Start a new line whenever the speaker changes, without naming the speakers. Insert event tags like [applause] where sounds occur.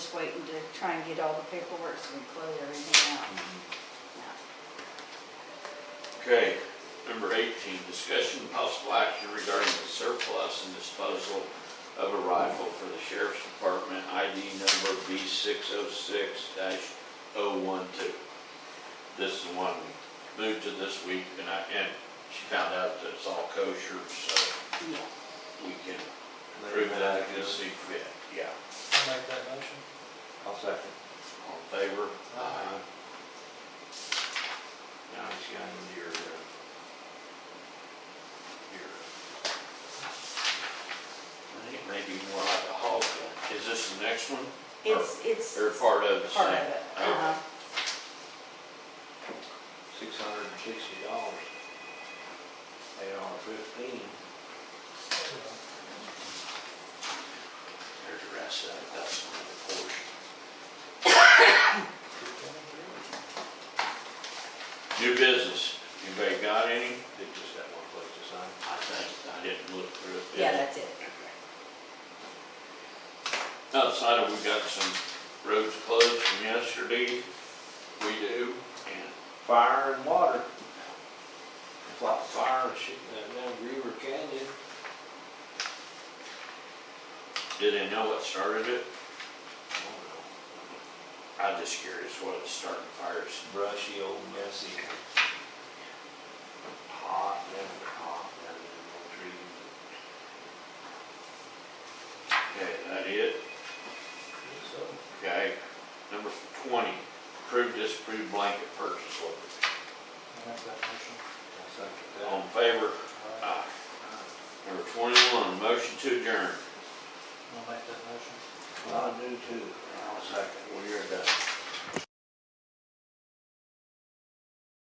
waiting to try and get all the paperwork so we can close everything out. Yeah.
Okay, number eighteen, discussion of possible action regarding the surplus and disposal of a rifle for the sheriff's department, ID number B six oh six 12 This is the one we moved to this week, and I, and she found out that it's all kosher, so
Yeah.
we can prove that if we see fit, yeah.
I'll make that motion.
I'll second.
All in favor?
Aye.
Now it's got your, uh, your. I think maybe more like a hog gun. Is this the next one?
It's, it's
Or part of the same?
part of it. Uh-huh.
Six hundred and sixty dollars. Eight on fifteen.
There's the rest of it, that's another portion.
[coughs]
New business, anybody got any?
Did just that one place to sign.
I think, I didn't look through it.
Yeah, that's it.
Outside of, we got some roads closed from yesterday, we do, and
Fire and water. It's like fire and shit, uh, down Griever Canyon.
Do they know what started it?
I don't
I'm just curious what it's starting fires.
know, Brushy, old messy. Hot, never hot, down in
Okay,
the trees.
that it.
So,
Okay. Number twenty, approve, disapprove blanket purchase order.
I'll make that motion.
I'll second that.
All in favor?
All
Aye.
right,
Number twenty-one, motion to adjourn.
I'll make that motion.
Well, I do too.